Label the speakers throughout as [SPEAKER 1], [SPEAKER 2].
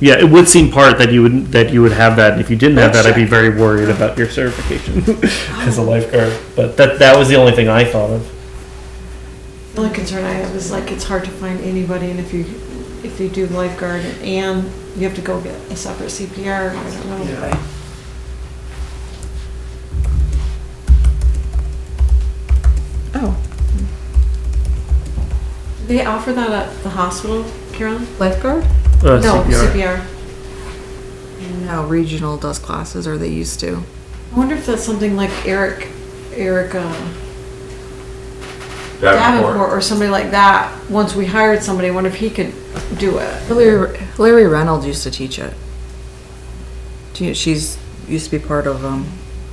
[SPEAKER 1] Yeah, it would seem part that you would that you would have that. and If you didn't have that, I'd be
[SPEAKER 2] Check.
[SPEAKER 1] very worried about your certification as a lifeguard. But that that was the only thing I thought of.
[SPEAKER 2] The only concern I have is like, it's hard to find anybody, and if you, if you do lifeguard and you have to go get a separate CPR, I don't know.
[SPEAKER 3] Yeah.
[SPEAKER 4] Oh,
[SPEAKER 2] They offer that at the hospital, Karen?
[SPEAKER 4] lifeguard?
[SPEAKER 1] Uh,
[SPEAKER 2] No,
[SPEAKER 1] CPR.
[SPEAKER 2] CPR.
[SPEAKER 4] No, regional does classes, or they used to.
[SPEAKER 2] I wonder if that's something like Eric, Eric uh,
[SPEAKER 3] Davenport.
[SPEAKER 2] Davenport or somebody like that. Once we hired somebody, I wonder if he could do it.
[SPEAKER 4] Larry, Larry Reynolds used to teach it. She, she's used to be part of um.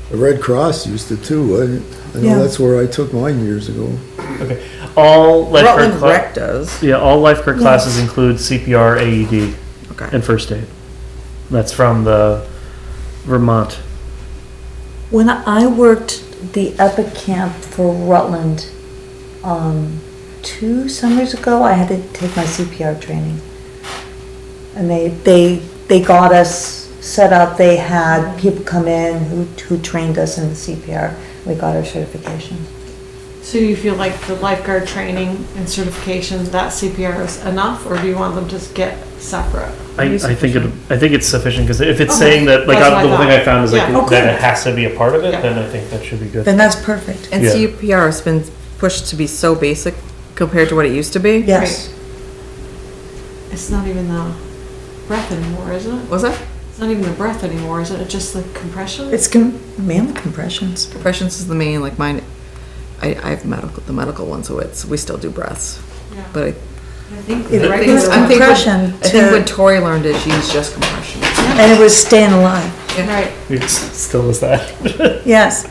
[SPEAKER 5] The Red Cross used to too. I, I know
[SPEAKER 4] Yeah.
[SPEAKER 5] that's where I took mine years ago.
[SPEAKER 1] Okay. All lifeguard
[SPEAKER 4] Rutland
[SPEAKER 1] cla-
[SPEAKER 4] Rec does.
[SPEAKER 1] yeah, all lifeguard classes include CPR, AED,
[SPEAKER 4] Okay.
[SPEAKER 1] E and first aid. That's from the Vermont.
[SPEAKER 6] When I worked the Epic Camp for Rutland, um, two summers ago, I had to take my CPR training. And they, they, they got us set up, they had people come in who, who trained us in the CPR. We got our certification.
[SPEAKER 2] So you feel like the lifeguard training and certification, that CPR is enough, or do you want them to get separate?
[SPEAKER 1] I, I think it I think it's sufficient because if it's
[SPEAKER 2] Okay,
[SPEAKER 1] saying that like
[SPEAKER 2] that's
[SPEAKER 1] I,
[SPEAKER 2] what
[SPEAKER 1] the
[SPEAKER 2] I
[SPEAKER 1] one thing
[SPEAKER 2] thought.
[SPEAKER 1] I found is like
[SPEAKER 2] Yeah.
[SPEAKER 1] that it has to be a part of it,
[SPEAKER 2] Yeah.
[SPEAKER 1] then I think that should be good.
[SPEAKER 6] Then that's perfect.
[SPEAKER 4] And
[SPEAKER 1] Yeah.
[SPEAKER 4] CPR has been pushed to be so basic compared to what it used to be.
[SPEAKER 6] Yes.
[SPEAKER 2] It's not even the breath anymore, is it?
[SPEAKER 4] Was it?
[SPEAKER 2] It's not even the breath anymore, is it? It's just the compression?
[SPEAKER 6] It's com- mainly compressions.
[SPEAKER 4] Compressions is the main like mine. I, I have medical the medical one, so it's we still do breaths.
[SPEAKER 2] Yeah.
[SPEAKER 4] But I
[SPEAKER 2] I think
[SPEAKER 6] It
[SPEAKER 2] the
[SPEAKER 4] I
[SPEAKER 2] regular
[SPEAKER 4] think,
[SPEAKER 6] was
[SPEAKER 4] I
[SPEAKER 2] one-
[SPEAKER 4] think,
[SPEAKER 6] compression
[SPEAKER 4] what, I think
[SPEAKER 6] to-
[SPEAKER 4] what Tori learned is she used just compression.
[SPEAKER 6] And it was staying alive.
[SPEAKER 2] Right,
[SPEAKER 1] It's still is that.
[SPEAKER 6] Yes.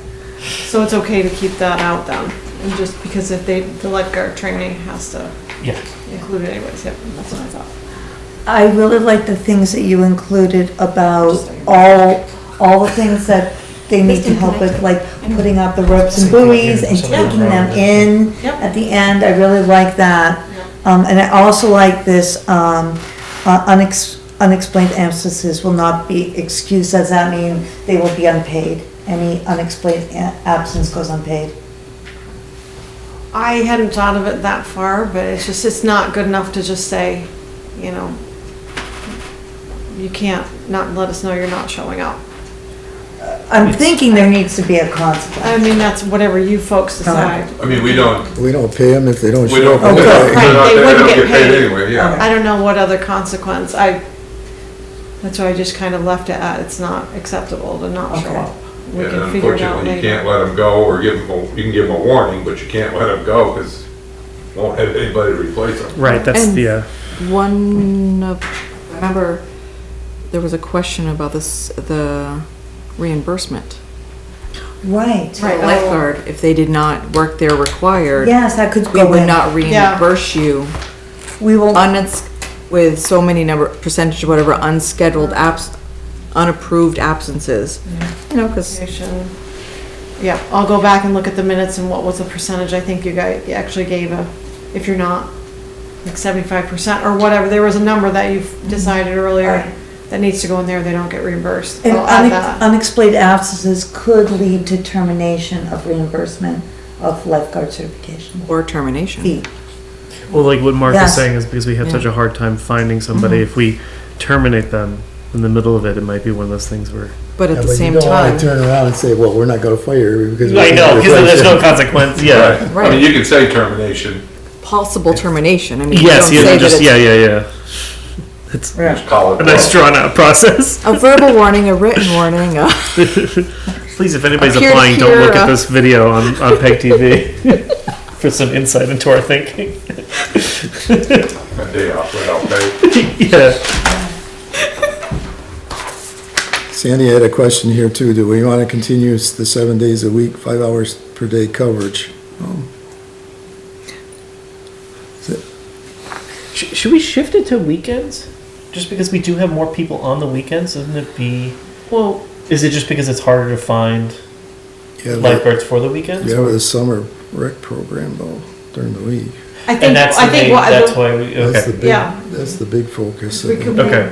[SPEAKER 2] so it's okay to keep that out then, and just because if they, the lifeguard training has to
[SPEAKER 1] yeah.
[SPEAKER 2] include it anyways, yep, that's what I thought.
[SPEAKER 6] I really like the things that you included about
[SPEAKER 2] Interesting.
[SPEAKER 6] all, all the things that they need to help with, like putting out the ropes and buoys and taking them in
[SPEAKER 2] Yep.
[SPEAKER 6] at the end. I really like that. Um, and I also like this, um, uh, unex- unexplained absences will not be excused. Does that mean they will be unpaid? Any unexplained a- absence goes unpaid.
[SPEAKER 2] I hadn't thought of it that far, but it's just, it's not good enough to just say, you know, you can't not let us know you're not showing up.
[SPEAKER 6] I'm thinking there needs to be a consequence.
[SPEAKER 2] I mean, that's whatever you folks decide.
[SPEAKER 3] I mean, we don't,
[SPEAKER 5] We don't pay them if they don't
[SPEAKER 3] we
[SPEAKER 5] show
[SPEAKER 3] don't,
[SPEAKER 5] up.
[SPEAKER 3] we're not there,
[SPEAKER 6] Okay.
[SPEAKER 2] Right, they
[SPEAKER 3] we
[SPEAKER 2] wouldn't
[SPEAKER 3] don't
[SPEAKER 2] get
[SPEAKER 3] get paid
[SPEAKER 2] paid.
[SPEAKER 3] anyway, yeah.
[SPEAKER 2] I don't know what other consequence, I, that's why I just kind of left it at, it's not acceptable to not show
[SPEAKER 6] Okay.
[SPEAKER 2] up. We
[SPEAKER 3] And
[SPEAKER 2] can figure it out
[SPEAKER 3] unfortunately, you can't
[SPEAKER 2] later.
[SPEAKER 3] let them go or give them, you can give them a warning, but you can't let them go because won't have anybody to replace them.
[SPEAKER 1] Right. That's
[SPEAKER 4] And-
[SPEAKER 1] the. Uh,
[SPEAKER 4] One of, I remember there was a question about this, the reimbursement.
[SPEAKER 6] Right.
[SPEAKER 2] Right. Oh.
[SPEAKER 4] Lifeguard, if they did not work their required,
[SPEAKER 6] Yes, that could
[SPEAKER 4] we
[SPEAKER 6] go
[SPEAKER 4] would
[SPEAKER 6] in.
[SPEAKER 4] not reimburse you
[SPEAKER 6] We will.
[SPEAKER 4] uns, with so many number, percentage, whatever, unscheduled abs, unapproved absences. You know, cause,
[SPEAKER 2] Yeah, I'll go back and look at the minutes and what was the percentage, I think you guys actually gave a, if you're not, like seventy-five percent or whatever, there was a number that you've decided earlier
[SPEAKER 6] Mm-hmm. Right.
[SPEAKER 2] that needs to go in there, they don't get reimbursed.
[SPEAKER 6] And
[SPEAKER 2] I'll add
[SPEAKER 6] unex-
[SPEAKER 2] that.
[SPEAKER 6] unexplained absences could lead to termination of reimbursement of lifeguard certification
[SPEAKER 4] or termination.
[SPEAKER 6] fee.
[SPEAKER 1] Well, like what Mark is
[SPEAKER 6] Yes.
[SPEAKER 1] saying is because we have such a hard time finding somebody, if we terminate them in the middle of it, it might be one of those things where.
[SPEAKER 4] But
[SPEAKER 5] Yeah,
[SPEAKER 4] at the
[SPEAKER 5] but
[SPEAKER 4] same
[SPEAKER 5] you don't wanna
[SPEAKER 4] time,
[SPEAKER 5] Turn around and say, well, we're not gonna fire you because. we
[SPEAKER 1] I
[SPEAKER 5] don't
[SPEAKER 1] know,
[SPEAKER 5] have a
[SPEAKER 1] because there's no
[SPEAKER 5] friendship."
[SPEAKER 1] consequence. Yeah.
[SPEAKER 3] Right. I mean, you can say termination,
[SPEAKER 4] possible termination, I mean, you don't
[SPEAKER 1] Yes, yeah,
[SPEAKER 4] say that
[SPEAKER 1] just, yeah,
[SPEAKER 4] it's.
[SPEAKER 1] yeah, yeah. It's
[SPEAKER 3] just call it.
[SPEAKER 1] a nice drawn out process.
[SPEAKER 4] A verbal warning, a written warning, a.
[SPEAKER 1] Please, if anybody's
[SPEAKER 4] Peer to
[SPEAKER 1] applying, don't
[SPEAKER 4] peer,
[SPEAKER 1] look at
[SPEAKER 4] uh,
[SPEAKER 1] this video on, on PEG TV for some insight into our thinking.
[SPEAKER 3] A day off without pay.
[SPEAKER 1] yeah.
[SPEAKER 5] Sandy had a question here too. Do we wanna continue s- the seven days a week, five hours per day coverage?
[SPEAKER 1] Sh- should we shift it to weekends? Just because we do have more people on the weekends, doesn't it be.
[SPEAKER 2] Well,
[SPEAKER 1] Is it just because it's harder to find
[SPEAKER 5] Yeah, but-
[SPEAKER 1] lifeguards for the weekends?
[SPEAKER 5] yeah, with the summer rec program though, during the week.
[SPEAKER 2] I think,
[SPEAKER 1] And that's the
[SPEAKER 2] I think
[SPEAKER 1] thing,
[SPEAKER 2] what,
[SPEAKER 1] that's
[SPEAKER 2] the-
[SPEAKER 1] why we,
[SPEAKER 5] That's
[SPEAKER 1] okay.
[SPEAKER 5] the big-
[SPEAKER 2] Yeah.
[SPEAKER 5] That's the big focus. I
[SPEAKER 2] we
[SPEAKER 5] think.
[SPEAKER 2] could
[SPEAKER 1] Okay.